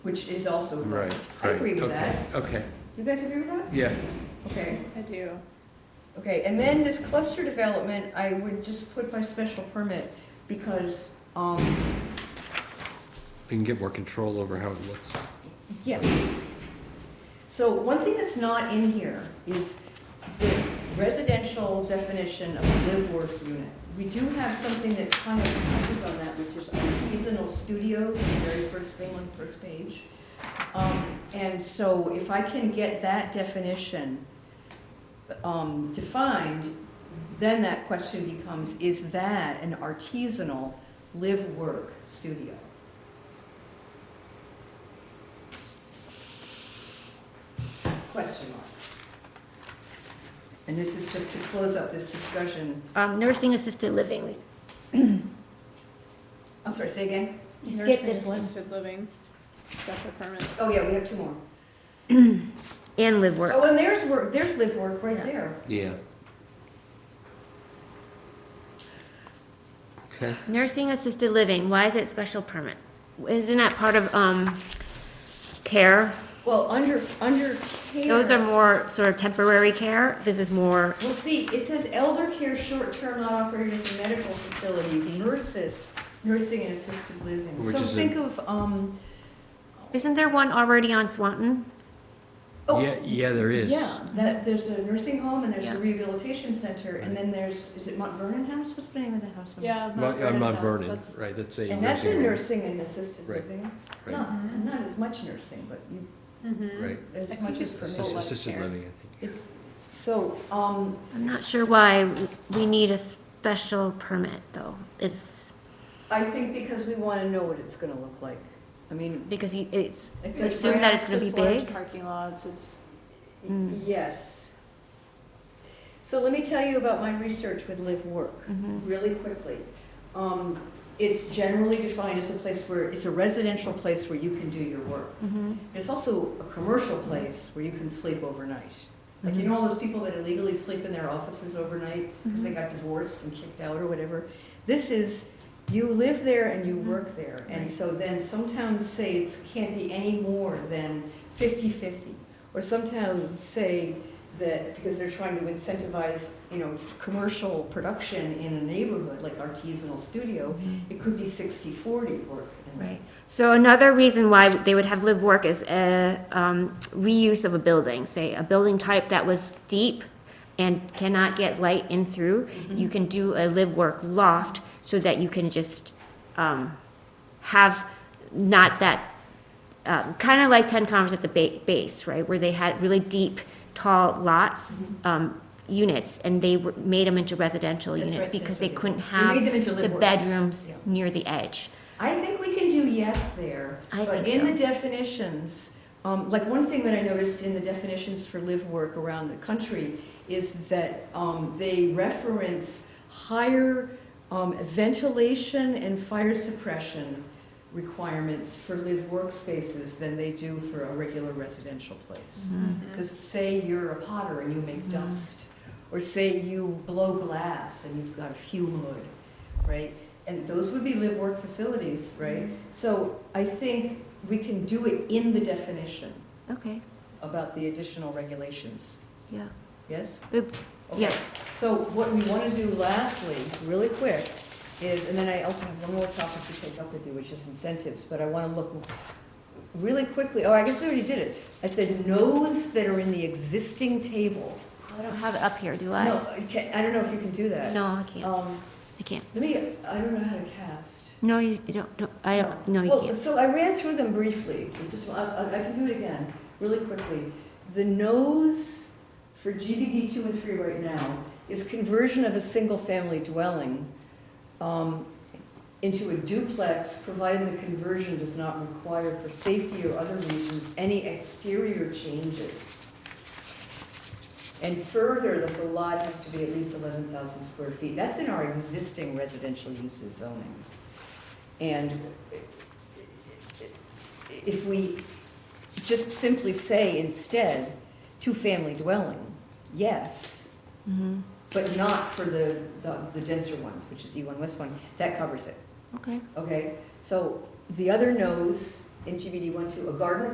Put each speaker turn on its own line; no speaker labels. which is also.
Right,
I
right.
agree with
okay,
that.
Okay,
You guys agree with that?
yeah,
Okay.
I do.
Okay, and then this cluster development, I would just put by special permit because, um,
we can get more control over how it looks.
yes. So one thing that's not in here is the residential definition of live work unit. We do have something that kind of touches on that, which is artisanal studios, the very first thing on the first page. Um, and so if I can get that definition, um, defined, then that question becomes, is that an artisanal live-work studio? Question mark. And this is just to close up this discussion.
Um, nursing assisted living,
I'm sorry, say again?
You skip
Nursing
this one.
assisted living, special permit.
Oh, yeah, we have two more.
and live work.
Oh, and there's work, there's live-work right
Yeah.
there.
Yeah. Okay,
Nursing assisted living, why is it special permit? Isn't that part of, um, care?
Well, under, under care.
Those are more sort of temporary care, this is more,
Well, see, it says elder care, short-term, not operated as a medical facility versus nursing and assisted living.
Which
So
is a-
think of, um,
isn't there one already on Swanton?
oh.
yeah, yeah, there is.
Yeah, that, there's a nursing home and there's a
Yeah.
rehabilitation center, and
Right.
then there's, is it Mount Vernon House? What's the name of the house? on-
Yeah.
Mount- uh, Mount
House,
Vernon,
that's-
right, that's a.
And that's a
home,
nursing and assisted
Right,
living.
right,
Not, not as much nursing, but you,
Mm-hmm.
Mhm.
Right,
I
as
think
much as
it's
for
a
Assist-
lot
nursing.
of
assisted
care.
living, I think.
It's, so, um,
I'm not sure why we need a special permit, though. It's
I think because we wanna know what it's gonna look like. I mean,
because you- it's,
I think
It's
Assume that it's
ramps,
gonna be
large
big?
Parking lots, it's,
Mm.
Yes. So let me tell you about my research with live work,
Mhm.
really quickly. Um, It's generally defined as a place where, it's a residential place where you can do your work.
mhm.
It's also a commercial place where you can sleep overnight. Like, you know all those people that illegally sleep in their offices overnight
Mm-hmm.
because they got divorced and kicked out or whatever? This is, you live there and you work there. And
Right.
so then some towns say it can't be any more than 50/50. Or some towns say that, because they're trying to incentivize, you know, commercial production in a neighborhood, like artisanal studio, it could be 60/40 work. and-
right. So another reason why they would have live work is a um, reuse of a building, say a building type that was deep and cannot get light in through.
Mm-hmm.
You can do a live work loft so that you can just um, have not that um, kind of like 10 Converse at the ba- base, right, where they had really deep, tall lots,
Mm-hmm.
um, units, and they were, made them into residential
That's
units
right,
because
that's
they
what
couldn't
did. They
have
made them into
the
live works.
bedrooms
Yeah.
near the edge.
I think we can do yes there.
I
But
think
in
so.
the definitions, um, like one thing that I noticed in the definitions for live work around the country is that, um, they reference higher, um, ventilation and fire suppression requirements for live workspaces than they do for a regular residential place.
Mm-hmm.
Mhm.
Because say you're a potter and you make dust, or say you blow glass and you've got a fume hood, right? And those would be live-work facilities,
Mm-hmm.
right? So I think we can do it in the definition
Okay,
about the additional regulations,
yeah.
yes?
Oop,
Okay.
yeah.
So what we want to do lastly, really quick, is, and then I also have one more topic to take up with you, which is incentives, but I want to look really quickly, oh, I guess we already did it, at the no's that are in the existing table.
I don't have it up here, do I?
No, I can't- I don't know if you can do that.
No, I can't,
Um,
I can't.
Let me, I don't know how to cast.
No, you you don't, don't- I don't, no, you
Well,
can't.
so I ran through them briefly, We just, I, I- I can do it again, really quickly. The no's for GBD two and three right now is conversion of a single-family dwelling um, into a duplex, provided the conversion does not require for safety or other reasons any exterior changes. And further, that the lot has to be at least eleven thousand square feet. That's in our existing residential uses zoning. And if we just simply say instead, two-family dwelling, yes,
Mhm.
but not for the, E the the denser ones, which is E1 West one, that covers it,
Okay,
okay? So The other nose in GBD one, two, a garden